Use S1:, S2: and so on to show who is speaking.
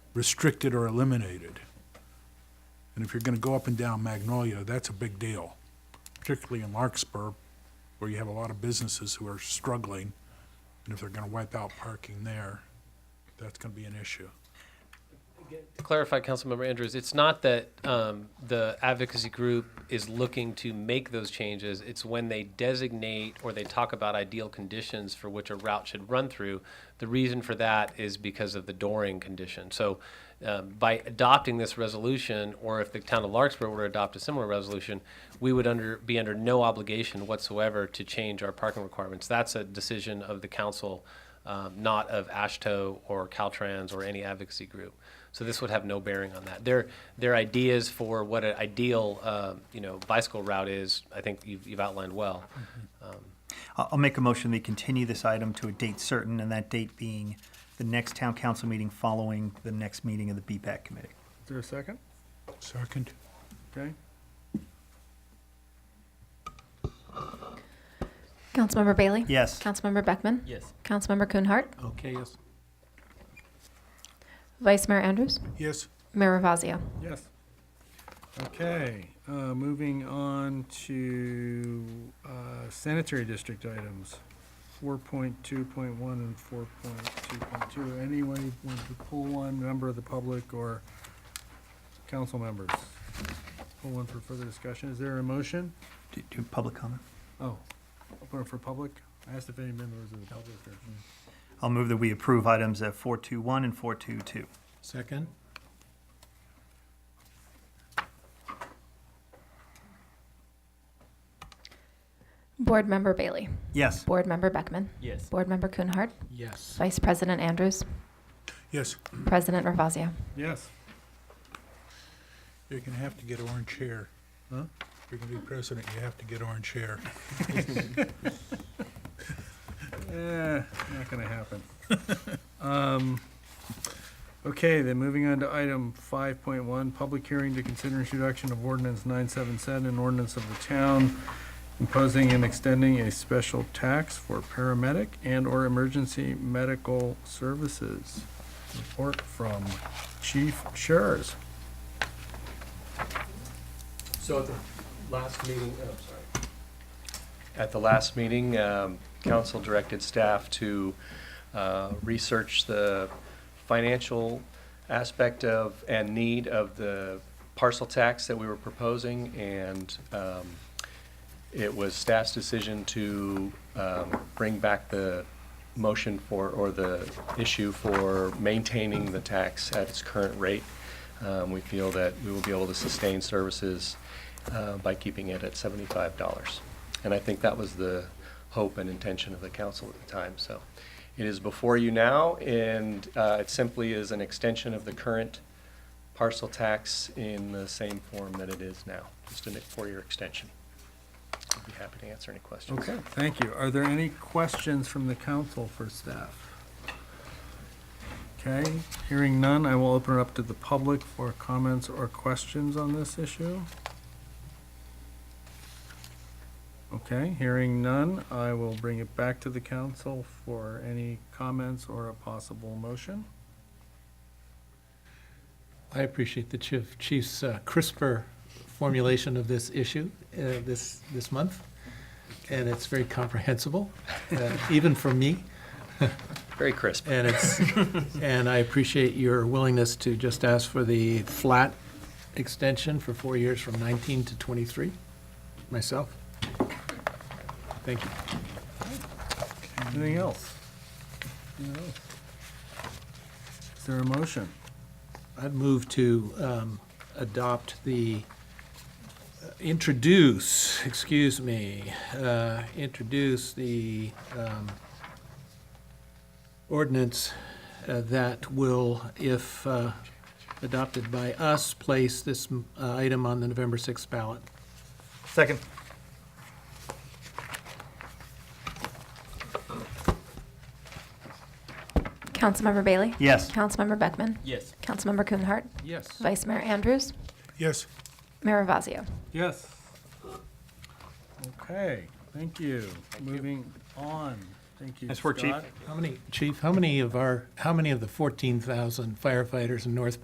S1: restricted or eliminated. And if you're gonna go up and down Magnolia, that's a big deal, particularly in Larkspur, where you have a lot of businesses who are struggling. And if they're gonna wipe out parking there, that's gonna be an issue.
S2: To clarify, Councilmember Andrews, it's not that um, the advocacy group is looking to make those changes. It's when they designate or they talk about ideal conditions for which a route should run through. The reason for that is because of the dooring condition. So um, by adopting this resolution, or if the town of Larkspur were to adopt a similar resolution, we would under, be under no obligation whatsoever to change our parking requirements. That's a decision of the council, um, not of ASHTO or Caltrans or any advocacy group. So this would have no bearing on that. Their, their ideas for what an ideal, um, you know, bicycle route is, I think you've, you've outlined well.
S3: I'll I'll make a motion, we continue this item to a date certain, and that date being the next town council meeting following the next meeting of the BPAC committee.
S4: Is there a second?
S1: Second?
S4: Okay.
S5: Councilmember Bailey?
S3: Yes.
S5: Councilmember Beckman?
S2: Yes.
S5: Councilmember Kuhnhart?
S2: Okay, yes.
S5: Vice Mayor Andrews?
S1: Yes.
S5: Mayor Ravazio?
S4: Yes. Okay, uh, moving on to, uh, sanitary district items, four point two point one and four point two point two. Anyone want to pull one, member of the public or council members? Pull one for further discussion. Is there a motion?
S3: Do, do public comment.
S4: Oh, open it for public? I asked if any members of the public are.
S3: I'll move that we approve items at four two one and four two two.
S1: Second?
S5: Board Member Bailey?
S3: Yes.
S5: Board Member Beckman?
S2: Yes.
S5: Board Member Kuhnhart?
S1: Yes.
S5: Vice President Andrews?
S1: Yes,
S5: President Ravazio?
S4: Yes.
S1: you're gonna have to get orange hair.
S4: Huh?
S1: If you're gonna be president, you have to get orange hair.
S4: Eh, not gonna happen. Um, okay, then moving on to item five point one, public hearing to consider introduction of ordinance nine seven seven, an ordinance of the town imposing and extending a special tax for paramedic and or emergency medical services. Report from Chief Schurz.
S6: So at the last meeting, oh, sorry. At the last meeting, um, council directed staff to uh, research the financial aspect of and need of the parcel tax that we were proposing, and um, it was staff's decision to um, bring back the motion for, or the issue for maintaining the tax at its current rate. Um, We feel that we will be able to sustain services uh, by keeping it at seventy-five dollars. And I think that was the hope and intention of the council at the time, so. It is before you now, and uh, it simply is an extension of the current parcel tax in the same form that it is now, just a four-year extension. I'd be happy to answer any questions.
S4: Okay, thank you. Are there any questions from the council for staff? Okay, hearing none, I will open it up to the public for comments or questions on this issue. Okay, hearing none, I will bring it back to the council for any comments or a possible motion.
S7: I appreciate the chief, chief's uh, crisper formulation of this issue uh, this, this month, and it's very comprehensible, uh, even for me,
S6: Very crisp.
S7: and it's, and I appreciate your willingness to just ask for the flat extension for four years from 19 to 23, myself. Thank you.
S4: Anything else? Anything else? Is there a motion?
S7: I'd move to um, adopt the, uh, introduce, excuse me, uh, introduce the um, ordinance uh, that will, if uh, adopted by us, place this uh, item on the November 6th ballot.
S3: Second.
S5: Councilmember Bailey?
S3: Yes.
S5: Councilmember Beckman?
S7: Yes.
S5: Councilmember Kuhnhart?
S7: Yes.
S5: Vice Mayor Andrews?
S1: Yes,
S5: Mayor Ravazio?
S4: Yes. Okay, thank you. Moving on Thank you.
S3: Nice work, Chief.
S4: Scott.
S7: How many, Chief, how many of our, how many of the 14,000 firefighters in North Bay